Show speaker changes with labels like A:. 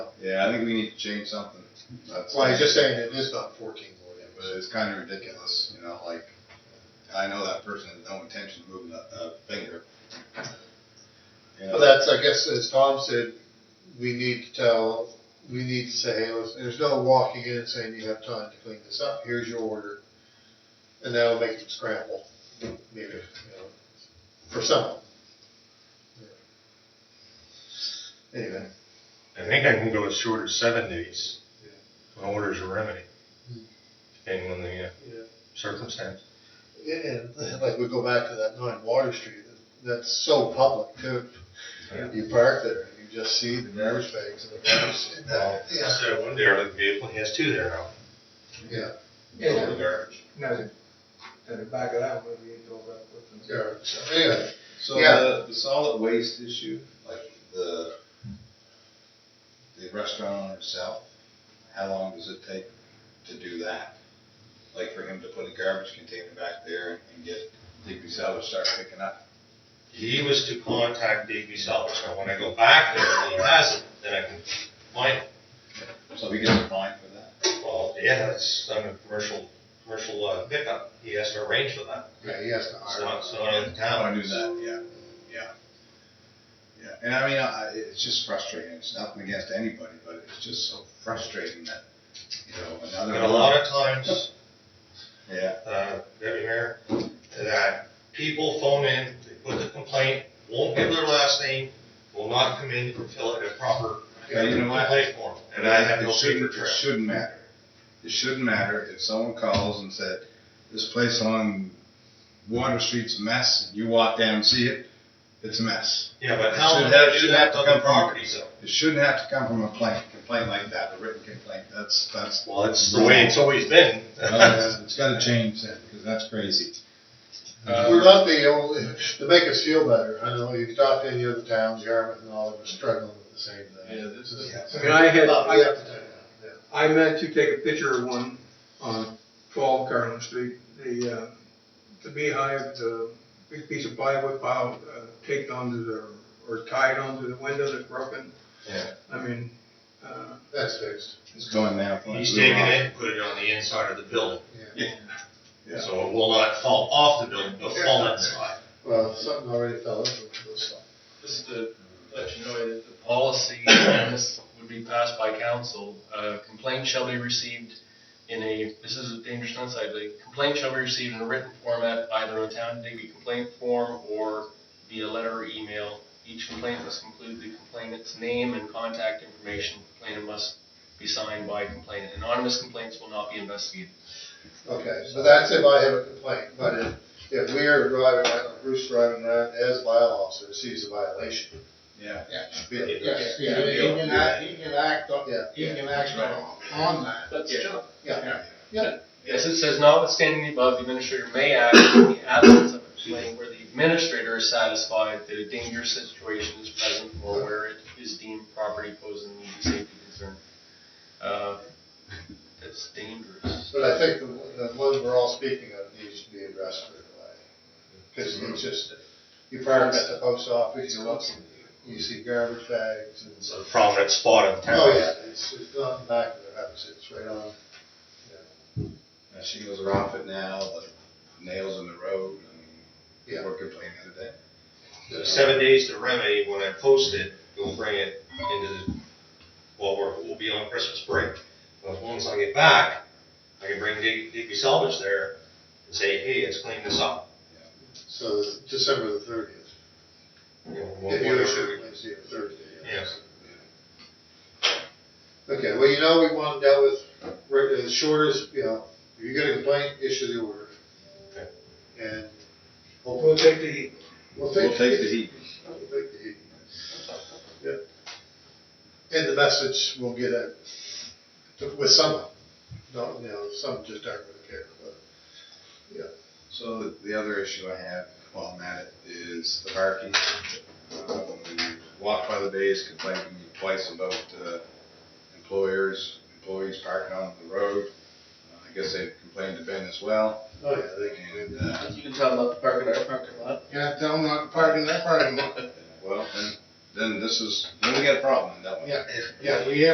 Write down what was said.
A: Yeah, I think we need to change something. That's
B: Well, he's just saying it is not fourteen more than,
A: But it's kind of ridiculous, you know, like, I know that person has no intention of moving a, a finger. You know,
B: Well, that's, I guess, as Tom said, we need to tell, we need to say, hey, listen, there's no walking in and saying you have time to clean this up, here's your order. And that'll make them scramble, maybe, you know, for some. Anyway,
C: I think I can go as short as seven days when orders are remedy, depending on the uh,
B: Yeah.
C: circumstance.
B: and like we go back to that nine Water Street, that's so public too. You park there, you just see the garbage bags and the garbage. in that, Uh, yeah.
C: So one derelict vehicle, he has two there now.
B: Yeah,
A: Full of garbage.
D: No, and to back it up, maybe you go back with them.
B: garbage, yeah.
A: So
B: Yeah.
A: the, the solid waste issue, like the, the restaurant owner itself, how long does it take to do that? Like for him to put a garbage container back there and get Digby Salvage start picking up?
C: He was to contact Digby Salvage, now when I go back there and he hasn't, then I can find him.
A: So he gets a fine for that?
C: Well, yeah, that's on a commercial, commercial uh, pickup, he has to arrange for that,
B: Yeah, he has to
C: it's
B: hire.
C: not, it's not in
A: How do I
C: town.
A: do that? Yeah, yeah, yeah. And I mean, I, it's just frustrating. It's nothing against anybody, but it's just so frustrating that you know another.
C: And a lot of times,
A: Yeah,
C: uh, Deputy Mayor, that people phone in, they put the complaint, won't give their last name, will not come in and fill out a proper
A: Yeah, you know what?
C: complaint form, and I have no
A: It
C: paper
A: shouldn't, it
C: trail.
A: shouldn't matter. It shouldn't matter if someone calls and said, "This place on Water Street's a mess," and you walk down and see it. It's a mess.
C: Yeah,
A: It
C: but how
A: should
C: would
A: have-
C: that do
A: should have
C: that
A: to
C: to other
A: come from-
C: properties though?
A: It shouldn't have to come from a complaint, complaint like that, a written complaint. That's that's.
C: Well, it's the way it's always been.
A: Well, it's got to change that because that's crazy.
B: We're not the only, to make us feel better, I know you've talked to any other towns, Yarmouth and all, that were struggling with the same thing.
A: Yeah, this is-
D: I mean, I had-
B: But we have to do that,
D: I meant to take a picture of one on twelve Garland Street, the, uh, the beehive, the big piece of plywood pile, uh, taped onto the, or tied onto the window that's broken.
C: Yeah.
D: I mean, uh,
B: yeah. that's fixed.
A: It's going now.
C: He's taking it, and put it on the inside of the building,
A: Yeah.
C: so it will not fall off the building, but fall inside.
B: Well, something already fell into it, so it's fine.
E: Just to let you know that the policy, and this would be passed by council, uh, complaint shall be received in a, this is a dangerous nuisance, I believe, complaint shall be received in a written format, either in town Digby complaint form or via letter or email. Each complaint must include the complainant's name and contact information. Complainant must be signed by complainant. Anonymous complaints will not be investigated.
B: Okay, so that's if I have a complaint, but if, if we are driving around, Bruce driving around as bylaw officer, sees a violation,
A: Yeah.
B: it should be a-
F: Yes, yeah, he can act, he can act on,
B: Yeah.
F: he can act on, on that.
E: That's true.
B: Yeah,
E: Yes, it says notwithstanding the above, the administrator may act in the absence of a complaint where the administrator is satisfied that a dangerous situation is present or where it is deemed property posing an immediate safety concern. Uh, That's dangerous.
B: but I think the, the one we're all speaking of needs to be addressed right away. Cause
C: Mm-hmm.
B: it's just, you park at the post office, you look, you see garbage bags and.
C: It's a prominent spot in town.
B: Oh, yeah, it's, it's not in the back of their house, it's right on.
A: And she goes around it now, like nails in the road, and
B: Yeah.
A: we're complaining the other day.
C: The Seven days to remedy, when I post it, we'll bring it into, the well, we're, we'll be on Christmas break. But once I get back, I can bring Dig- Digby Salvage there and say, hey, let's clean this up.
B: So it's December the thirtieth.
C: You know, we'll-
B: If you
C: whatever
B: issue it
C: we-
B: Wednesday or Thursday.
C: Yeah.
B: Okay, well, you know, we want to deal with, right, as short as, you know, if you get a complaint, issue the order.
C: Okay.
B: And
D: we'll
B: hopefully,
D: take the,
B: we'll
A: We'll
B: take.
A: take the heat.
B: We'll take the heat. Yep. And the message will get out to- with some, not, you know, some just aren't gonna care, but,
A: So the, the other issue I have while I'm at it is the parking. Um, we Walked by the bays, complained to me twice about, uh, employers, employees parking on the road. Uh, I guess they complained to Ben as well,
B: oh, yeah, they can do
A: and,
B: that.
A: uh,
E: You can tell about the parking, our parking lot.
F: Yeah, tell him not to park in that parking lot.
A: well, then, then this is, then we got a problem, don't we?
F: Yeah, we have